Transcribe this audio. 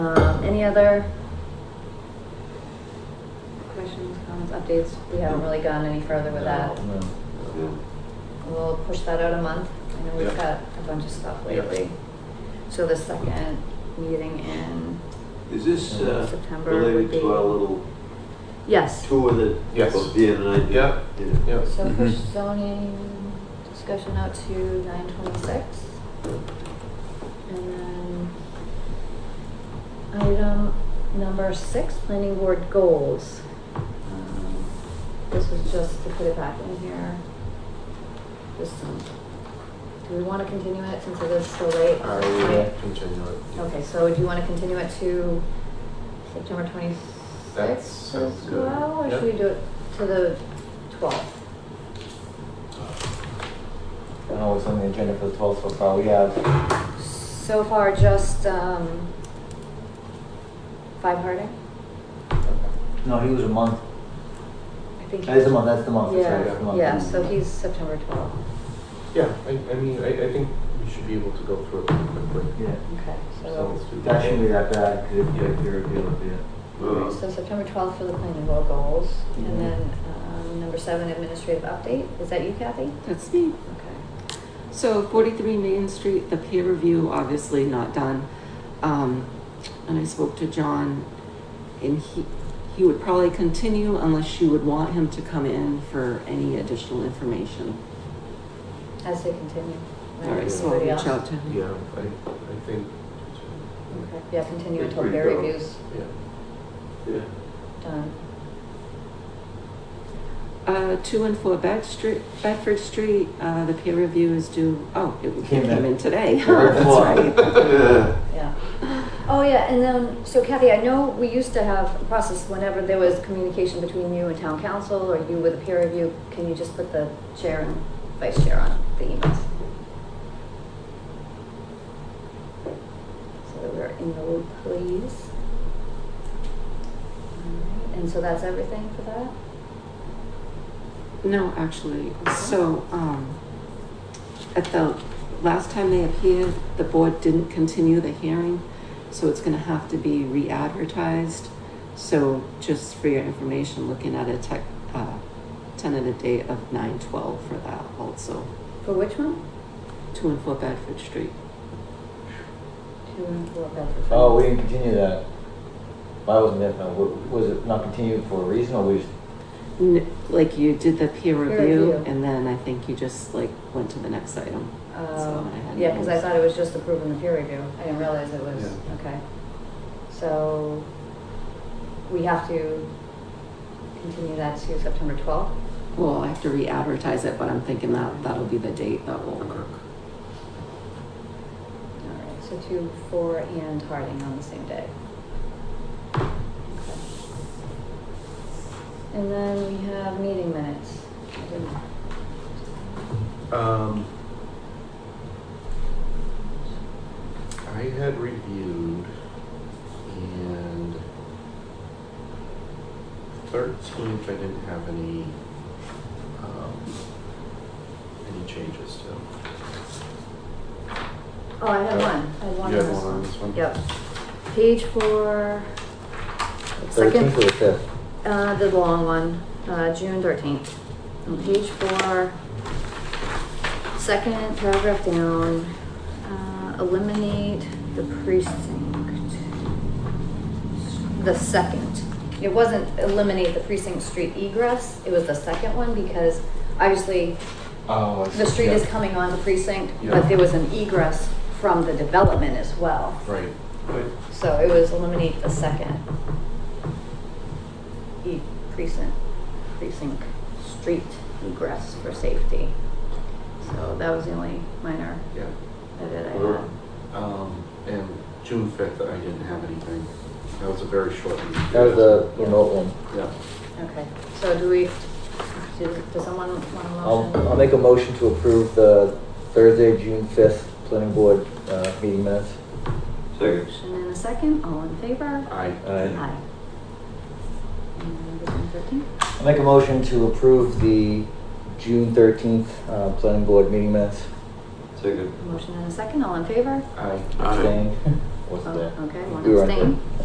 Um, Any other questions, comments, updates? We haven't really gone any further with that. No. We'll push that out a month. I know we've Yep. got a bunch of stuff Yep. lately. So the second meeting in, Is this uh, September would related be- to our little yes. tour that Yes. both Dan and I did? Yeah. Yeah. Yes. So push zoning discussion out to nine twenty-six. And then item number six, planning board goals. Um, This was just to put it back in here. Just some, do we want to continue it since it is so late? I will continue it. Okay, so do you want to continue it to September That twenty-sixth sounds as good. well? Or Yep. should we do it to the twelfth? I don't know what's on the agenda for the twelfth so far. We have, So far, just um, five Harding. no, he was a month. I think. That is a month, that's the month, that's right, that's the Yeah, month. yeah, so he's September 12th. Yeah, I, I mean, I, I think we should be able to go through it pretty quickly. Yeah, Okay, So so, let's do that shouldn't be that bad, cause if you're, Yeah. you're, yeah. Uh, so September 12th for the planning board goals. Mhm. And then um, number seven, administrative update. Is that you, Kathy? That's me. Okay. So 43 Main Street, the peer review, obviously not done. Um, and I spoke to John, and he, he would probably continue unless you would want him to come in for any additional information. As they continue. Right, All right, so I'll anybody reach out else? to him. Yeah, I, I think, Okay, Yeah, continue until Pretty peer thorough. review's yeah. yeah. done. Uh, two and four Bed Street, Bedford Street, uh, the peer review is due, oh, it it Came in. came in today. Very That's full. right. Yeah. Yeah. Oh, yeah, and then, so Kathy, I know we used to have a process whenever there was communication between you and town council or you with a peer review, can you just put the chair and vice chair on the emails? So that we're in the loop, please. All right, And so that's everything for that? No, actually, so, um, at the, last time they appeared, the board didn't continue the hearing, so it's gonna have to be re-advertised. So just for your information, looking at a tech, uh, tentative date of nine twelve for that also, For which one? two and four Bedford Street. Two and four Bedford. Oh, we didn't continue that. Well, I wasn't there, for- wa- was it not continued for a reason or we just? N- Like you did the Peer peer review, review. and then I think you just like went to the next item. Uh, So I had Yeah, because I those. thought it was just approving the peer review. I didn't realize it was, Yeah. okay. So we have to continue that to September 12th? Well, I have to re-advertise it, but I'm thinking that that'll be the date that will work. All right, so two, four, and Harding on the same day. Okay. And then we have meeting minutes. I didn't- Um, I had reviewed and thirteenth, I didn't have any, um, any changes to. Oh, I had one. I had one on Uh, You had this one on one. this one? Yep. Page four, second. Thirteenth or the fifth? Uh, the long one, uh, June thirteenth, on page four, second paragraph down, uh, eliminate the precinct. The second, it wasn't eliminate the precinct street egress, it was the second one because obviously Oh, the street is coming on the precinct, Yeah. but there was an egress from the development as well. Right. Right. So it was eliminate the second. E precinct, precinct, street egress for safety. So that was the only minor Yeah. edit I Sure. had. Um, and June fifth, I didn't have anything. That was a very short meeting. That was the remote one. Yeah. Okay, so do we, does, does someone want a motion? I'll, I'll make a motion to approve the Thursday, June fifth planning board, uh, meeting minutes. Second. Motion in a second, all in favor? I, Aye. Aye. And item thirteen? I'll make a motion to approve the June thirteenth, uh, planning board meeting minutes. Second. Motion in a second, all in favor? I, Aye. Abstain. was Oh, there. Okay, one We were in- abstain.